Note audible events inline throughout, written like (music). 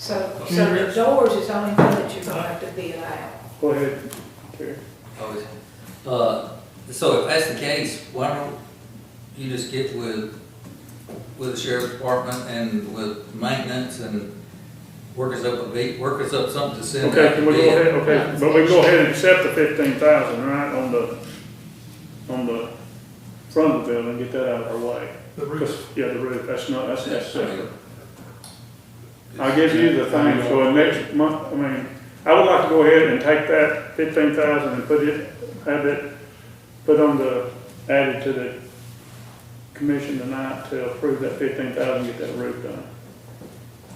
So, so the doors is the only thing that you're gonna have to be allowed. Go ahead, Terry. Always. Uh, so if that's the case, why don't you just get with, with the sheriff's department and with maintenance and work us up a beat, work us up something to send out. Okay, can we to go bid? ahead, okay, but we go ahead and accept the fifteen thousand, right, on the, on the front of the building, get that out of our way. The 'Cause, yeah, the roof, that's not, that's That's the necessary. deal. I'll give you the thing, so in next month, I mean, I would like to go ahead and take that fifteen thousand and put it, have it, put on the, added to the commission tonight to approve that fifteen thousand, get that roof done.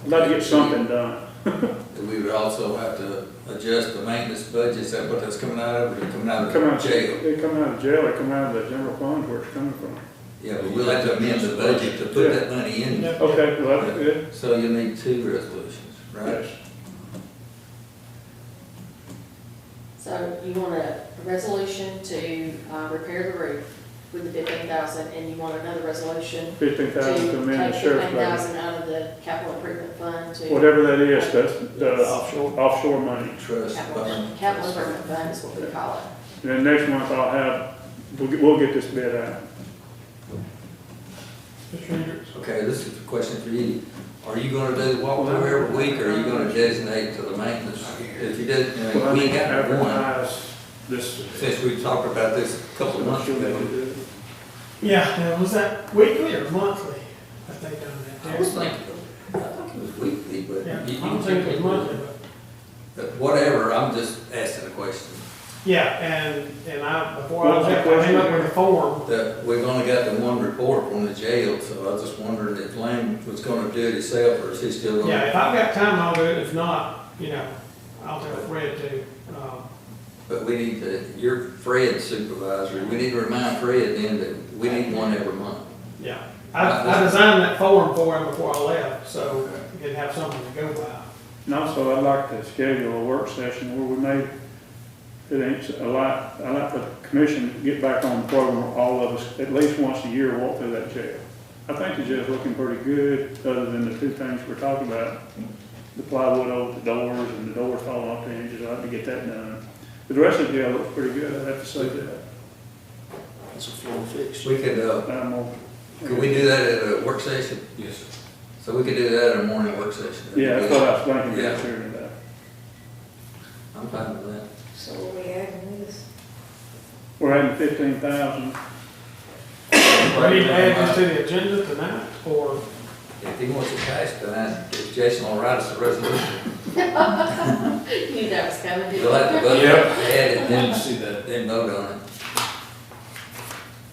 I'd like to get something done. And We would also have to adjust the maintenance budget, is that what that's coming out of, or coming out Come of out, jail? it come out of jail, it come out of the general fund where it's coming from. Yeah, but we'll have to amend the budget to put that money in, Okay, well, that's good, so you need two resolutions, right? yes. So you want a resolution to uh, repair the roof with the fifteen thousand, and you want another resolution Fifteen to thousand take to fifteen amend the sheriff's budget, thousand out of the capital improvement fund to whatever that is, that's the offshore money. Trust capital, fund. capital improvement fund is what we call it. And then next month I'll have, we'll, get- we'll get this bid out. Mr. Hendricks, Okay, this is a question for you. Are you gonna do the walkthrough every week, or are you gonna designate to the maintenance? If you did, you Well, know, I we need ain't to got one, advertise this. since we talked about this a couple of months ago. Yeah, now, was that weekly or monthly? I think I on was thinking, I think it was uh, weekly, but that. Yeah, you, I don't think it was monthly, but, but whatever, I'm just asking a question. yeah, and, and I, before I What was the left, I came up question? with a form. That, we've only got the one report from the jail, so I was just wondering if Lane was gonna do it himself, or is he still Yeah, gonna? if I've got time, I'll do it, if not, you know, I'll tell Fred to, um, But we need to, you're Fred's supervisor, we need to remind Fred then that we need one every month. yeah. Uh, I, I designed that form for him before I left, so he'd have something to go by. And also, I'd like to schedule a work session where we may, it ain't a lot, I'd like the commission to get back on the program, where all of us, at least once a year, walk through that jail. I think the jail's looking pretty good, other than the two things we're talking about, the plywood over the doors and the doors falling off the hinges, I'd like to get that done. But the rest of the jail looks pretty good, I'd have to say that. It's a floor fix. We could, uh, But I'm all- Could we do that at a work session? Yes, sir. So we could do that at a morning work session? Yeah, that's what I was thinking, Yeah. that's here and that. I'm fine with that. So what we adding this, We're adding fifteen thousand, Do we need to add this to the agenda tonight, or? If he wants to pass tonight, if Jason will write us a resolution, (laughs) You knew that was coming, didn't you? we'll have to vote, Yeah. add it, Didn't then, see that. then vote on it.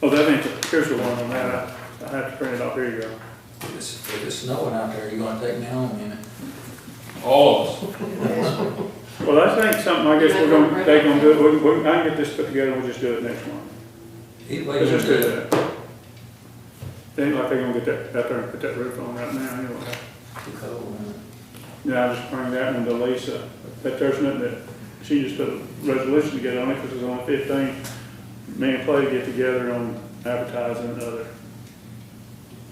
oh, that ain't, the- here's the one on that, I, I have to print it off, here you go. If it's, if it's snowing out there, you gonna take me home, you know? All of us. Well, that's ain't something, I guess we're gonna, they gonna do, it. we, we, I can get this put together, we'll just do it next month. Either way, Let's you just do do it. that. They ain't like they gonna get that, out there and put that roof on right now anyway. Too cold, huh? Now, I just bring that one to Lisa, but there's nothing that, she just put a resolution together on it, cause it's only fifteen. Me and Clay get together on advertising and other,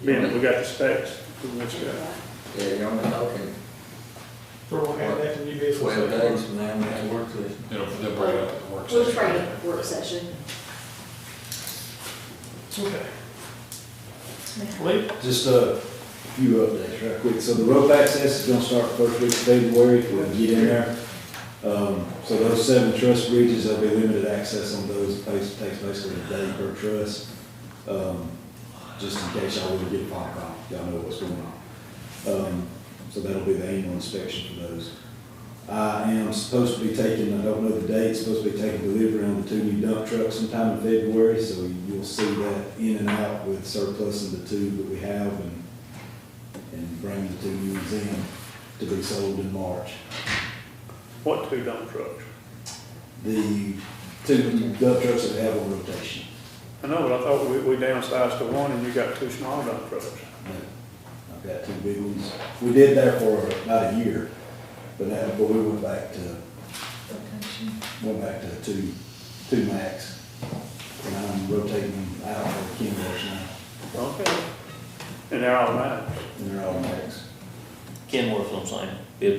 being that we got the specs, which, uh, Yeah, you're only talking Or we'll add that to new business. twelve days from now, we have a work session. They'll, they'll bring it up at the work We'll session. try it work session. Okay. Lee, Just uh, a few updates right quick. So the rope access is gonna start first week of February if we can get in there. Um, so those seven truss bridges, there'll be limited access on those, Bas- takes basically a day per truss. Um, just in case y'all would get popped off, y'all know what's going on. Um, so that'll be the annual inspection for those. I am supposed to be taking, I don't know the date, supposed to be taking delivery on the two new dump trucks sometime in February, so you'll see that in and out with surplus of the two that we have and, and bring the two new ones in to be sold in March. what two dump trucks? The two new dump trucks that we have on rotation. I know, but I thought we, we downsized to one and you got two small dump trucks. I've got two big ones. We did that for about a year, but now, but we went back to, went back to two, two max. And I'm rotating them out for Ken Rush now, Okay. And they're all mine. and they're all max. Kenworth's on sale.